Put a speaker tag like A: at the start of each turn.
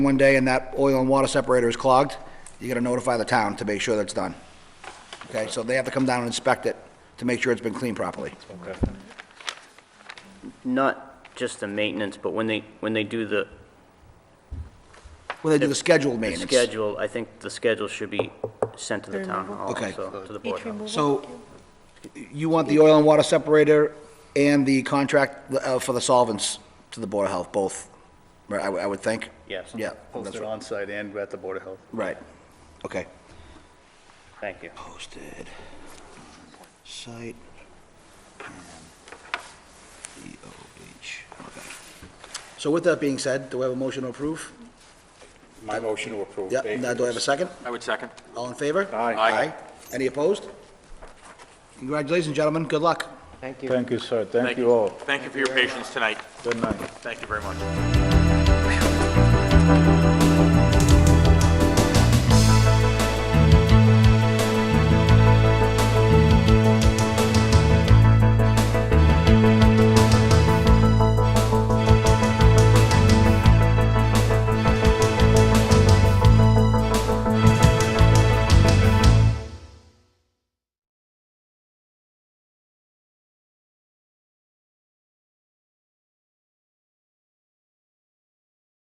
A: one day and that oil and water separator is clogged, you gotta notify the town to make sure that's done. Okay, so they have to come down and inspect it to make sure it's been cleaned properly.
B: Not just the maintenance, but when they, when they do the
A: When they do the scheduled
B: the
A: maintenance.
B: schedule, I think the schedule should be sent to the town hall,
A: Okay.
B: so, to the board. hall.
A: So you want the oil and water separator and the contract uh, for the solvents to the Board of Health, both, right, I would- I would think?
B: Yes.
A: Yeah. that's
C: Posted
A: right.
C: on-site and at the Board of Health.
A: Right, okay.
B: Thank you.
A: Posted site E and DOH, okay. So with that being said, do we have a motion to approve?
D: My motion to approve.
A: Yeah, now do I have a second?
D: I would second.
A: All in favor?
C: Aye.
D: Aye.
A: Any opposed? Congratulations, gentlemen, good luck.
C: Thank you, sir. Thank you all.
D: Thank you for your patience tonight.
C: Good night.
D: Thank you very much.